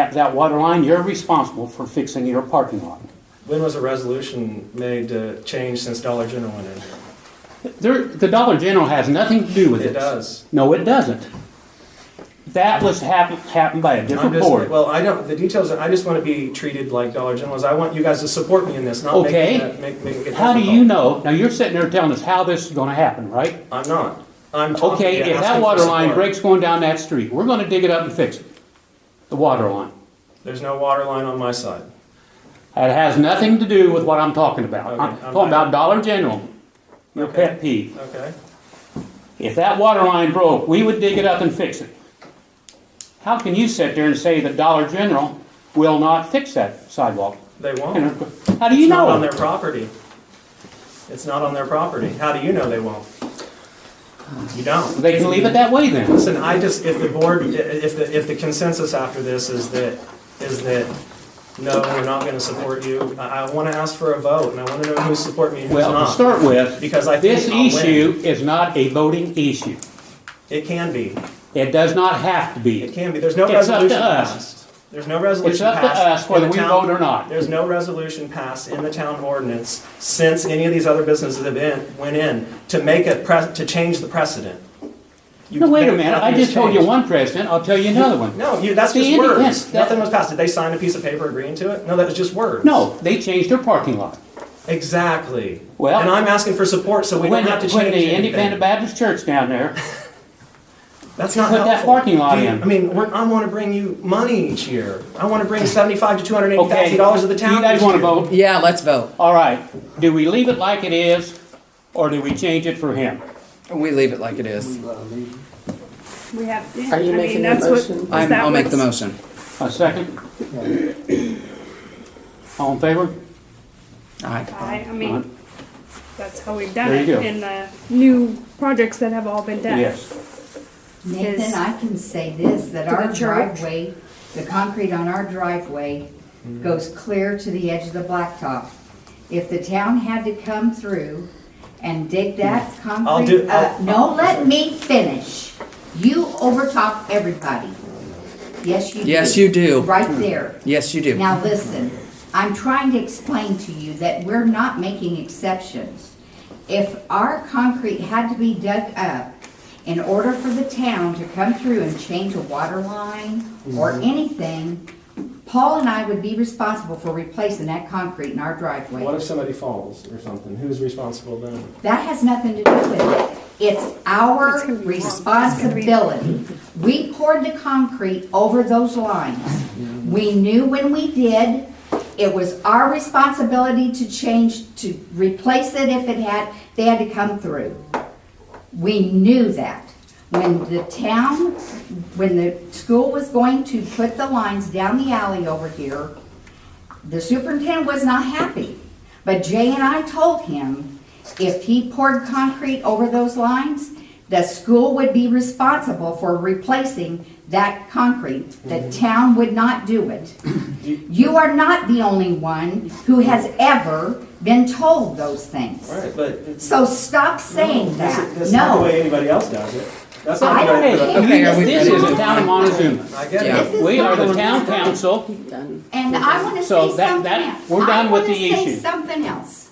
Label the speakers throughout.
Speaker 1: that- that water line, you're responsible for fixing your parking lot.
Speaker 2: When was a resolution made to change since Dollar General went in?
Speaker 1: There, the Dollar General has nothing to do with
Speaker 2: It
Speaker 1: this.
Speaker 2: does.
Speaker 1: No, it doesn't. That was happen, happened by a
Speaker 2: I'm
Speaker 1: different
Speaker 2: just-
Speaker 1: board.
Speaker 2: Well, I don't, the details, I just want to be treated like Dollar General is. I want you guys to support me in this, not make
Speaker 1: Okay.
Speaker 2: it, make, make it
Speaker 1: How do
Speaker 2: difficult.
Speaker 1: you know, now you're sitting there telling us how this is gonna happen, right?
Speaker 2: I'm not. Oh, I'm talking.
Speaker 1: Okay,
Speaker 2: and
Speaker 1: if
Speaker 2: asking
Speaker 1: that
Speaker 2: for
Speaker 1: water line
Speaker 2: support.
Speaker 1: breaks going down that street, we're gonna dig it up and fix it. The water line.
Speaker 2: There's no water line on my side.
Speaker 1: It has nothing to do with what I'm talking about.
Speaker 2: Okay,
Speaker 1: I'm
Speaker 2: I'm-
Speaker 1: talking about Dollar General, your pet peeve.
Speaker 2: Okay?
Speaker 1: If that water line broke, we would dig it up and fix it. How can you sit there and say that Dollar General will not fix that sidewalk?
Speaker 2: They
Speaker 1: You
Speaker 2: won't.
Speaker 1: know, How do you
Speaker 2: It's not on
Speaker 1: know?
Speaker 2: their property. It's not on their property. How do you know they won't? You don't.
Speaker 1: They can leave it that way then.
Speaker 2: Listen, I just, if the board, if the, if the consensus after this is that, is that, no, we're not gonna support you, I, I wanna ask for a vote, and I wanna know who's supporting me and who's
Speaker 1: Well, to
Speaker 2: not.
Speaker 1: start with,
Speaker 2: Because I think
Speaker 1: this
Speaker 2: I'll win.
Speaker 1: issue is not a voting issue.
Speaker 2: It can be,
Speaker 1: It does not have to
Speaker 2: it
Speaker 1: be.
Speaker 2: can be, there's no
Speaker 1: It's up to
Speaker 2: resolution
Speaker 1: us.
Speaker 2: passed. There's no resolution
Speaker 1: It's up to
Speaker 2: passed
Speaker 1: us
Speaker 2: in
Speaker 1: whether
Speaker 2: the
Speaker 1: we
Speaker 2: town-
Speaker 1: vote or not.
Speaker 2: There's no resolution passed in the town ordinance since any of these other businesses have been, went in, to make a pre, to change the precedent. You-
Speaker 1: No, wait a
Speaker 2: there-
Speaker 1: minute, I
Speaker 2: nothing has
Speaker 1: just told you
Speaker 2: changed.
Speaker 1: one precedent, I'll tell you another one.
Speaker 2: No, you, that's
Speaker 1: The
Speaker 2: just
Speaker 1: independent-
Speaker 2: words.
Speaker 1: that-
Speaker 2: Nothing was passed. Did they sign a piece of paper agreeing to it? No, that was just words.
Speaker 1: No, they changed their parking lot.
Speaker 2: Exactly.
Speaker 1: Well-
Speaker 2: and I'm asking for support so we
Speaker 1: When,
Speaker 2: don't have to change
Speaker 1: when the
Speaker 2: anything.
Speaker 1: Independent Baptist Church down there,
Speaker 2: That's not
Speaker 1: put that
Speaker 2: helpful.
Speaker 1: parking lot
Speaker 2: Do you-
Speaker 1: in.
Speaker 2: I mean, we're, I want to bring you money each year. I want to bring seventy-five to two hundred eighty
Speaker 1: okay,
Speaker 2: thousand dollars to the town.
Speaker 1: you guys
Speaker 2: each
Speaker 1: wanna
Speaker 2: year.
Speaker 1: vote?
Speaker 3: Yeah, let's vote.
Speaker 1: All right, do we leave it like it is, or do we change it for him?
Speaker 3: We leave it like it is.
Speaker 4: We have, yeah,
Speaker 5: Are you
Speaker 4: I mean,
Speaker 5: making a
Speaker 4: that's what.
Speaker 5: motion?
Speaker 4: is
Speaker 3: I'm,
Speaker 4: that
Speaker 3: I'll make the
Speaker 4: what's-
Speaker 3: motion.
Speaker 1: A second? All in favor? Uh,
Speaker 3: Aye.
Speaker 4: I, I
Speaker 1: Alright.
Speaker 4: mean, that's how we've done
Speaker 1: There
Speaker 4: it
Speaker 1: you go.
Speaker 4: in the new projects that have all been done.
Speaker 1: Yes.
Speaker 4: Is-
Speaker 6: Nathan, I can say this, that
Speaker 4: To the
Speaker 6: our
Speaker 4: church?
Speaker 6: driveway, the concrete on our driveway
Speaker 2: Mm-hmm.
Speaker 6: goes clear to the edge of the blacktop. If the town had to come through and dig that concrete
Speaker 2: do-
Speaker 6: up,
Speaker 2: Mm. I'll-
Speaker 6: no, let me finish. You overtop everybody. Yes, you do.
Speaker 3: Yes, you do.
Speaker 6: Right there.
Speaker 3: Yes, you do.
Speaker 6: Now, listen, I'm trying to explain to you that we're not making exceptions. If our concrete had to be dug up in order for the town to come through and change a water line or
Speaker 3: Mm-hmm.
Speaker 6: anything, Paul and I would be responsible for replacing that concrete in our
Speaker 2: What
Speaker 6: driveway.
Speaker 2: if somebody falls or something? Who's responsible then?
Speaker 6: That has nothing to do with it. It's
Speaker 4: It's gonna
Speaker 6: our
Speaker 4: be wrong. It's gonna be-
Speaker 6: responsibility. We poured the concrete over those lines. We knew when we did, it was our responsibility to change, to replace it if it had, they had to come through. We knew that. When the town, when the school was going to put the lines down the alley over here, the superintendent was not happy. But Jay and I told him, if he poured concrete over those lines, the school would be responsible for replacing that concrete. The town would not do it. You are not the only one who has ever been told those things.
Speaker 2: All right, but it's,
Speaker 6: So stop saying
Speaker 2: that's,
Speaker 6: that.
Speaker 2: that's not the
Speaker 6: No.
Speaker 2: way anybody else does it. That's not
Speaker 6: I
Speaker 2: the
Speaker 6: don't
Speaker 2: way.
Speaker 6: care.
Speaker 3: Okay, are we-
Speaker 1: This is the town of Montezuma.
Speaker 2: I get
Speaker 3: Yeah.
Speaker 2: it.
Speaker 6: This is
Speaker 1: We are the
Speaker 6: not-
Speaker 1: town council.
Speaker 6: And I want to
Speaker 1: So
Speaker 6: say
Speaker 1: that-
Speaker 6: something
Speaker 1: that-
Speaker 6: else.
Speaker 1: we're done with the
Speaker 6: I want to
Speaker 1: issue.
Speaker 6: say something else.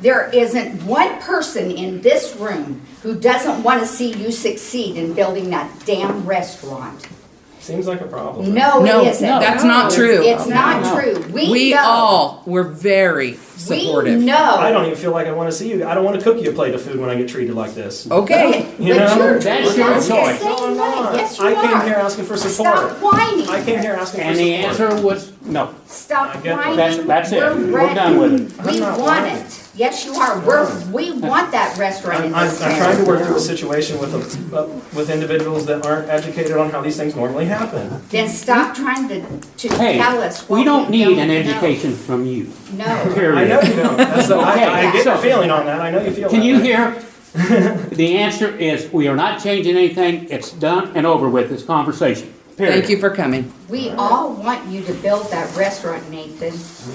Speaker 6: There isn't one person in this room who doesn't want to see you succeed in building that damn restaurant.
Speaker 2: Seems like a problem.
Speaker 6: No,
Speaker 3: No,
Speaker 6: it isn't.
Speaker 3: that's not true.
Speaker 6: It's not
Speaker 1: No.
Speaker 6: true. We,
Speaker 3: We
Speaker 6: know.
Speaker 3: all were very
Speaker 6: We
Speaker 3: supportive.
Speaker 2: I
Speaker 6: know.
Speaker 2: don't even feel like I want to see you. I don't want to cook you a plate of food when I get treated like this.
Speaker 3: Okay.
Speaker 6: But
Speaker 2: You know,
Speaker 6: you're-
Speaker 1: that's your
Speaker 6: that's the
Speaker 1: choice.
Speaker 6: same
Speaker 2: No, I'm
Speaker 6: way.
Speaker 2: not.
Speaker 6: Yes, you
Speaker 2: I came
Speaker 6: are.
Speaker 2: here asking for support.
Speaker 6: Stop whining.
Speaker 2: I came here asking for
Speaker 1: And the
Speaker 2: support.
Speaker 1: answer was no.
Speaker 2: I
Speaker 6: Stop
Speaker 2: get
Speaker 6: whining.
Speaker 1: that. That's- that's it.
Speaker 6: We're
Speaker 1: We're done with
Speaker 6: ready.
Speaker 1: it.
Speaker 2: I'm
Speaker 6: We
Speaker 2: not
Speaker 6: want
Speaker 2: whining.
Speaker 6: it. Yes, you are. We're, we want that restaurant in
Speaker 2: I'm, I'm,
Speaker 6: this town.
Speaker 2: I'm trying to work through the situation with, the- with individuals that aren't educated on how these things normally happen.
Speaker 6: Then stop trying to, to
Speaker 1: Hey,
Speaker 6: tell us what
Speaker 1: we don't need an
Speaker 6: know.
Speaker 1: education from you,
Speaker 6: No.
Speaker 2: I know
Speaker 1: period.
Speaker 2: you don't. That's the, I, I get your
Speaker 1: Okay.
Speaker 2: feeling on that. I know you feel
Speaker 1: Can
Speaker 2: that
Speaker 1: you
Speaker 2: way.
Speaker 1: hear? The answer is, we are not changing anything. It's done and over with, this conversation, period.
Speaker 3: Thank you for coming.
Speaker 6: We all want you to build that restaurant, Nathan.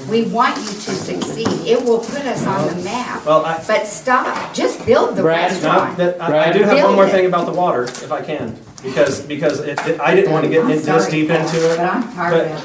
Speaker 6: We want you to succeed. It will put us on the map.
Speaker 2: Well, I-
Speaker 6: But stop. Just build the
Speaker 1: Brad, no,
Speaker 2: No,
Speaker 6: restaurant.
Speaker 2: that, I, I do have one more thing about the water, if I can. Because, because it, it- I didn't wanna get in- this
Speaker 6: Sorry,
Speaker 2: deep into it.
Speaker 6: But I'm tired of it.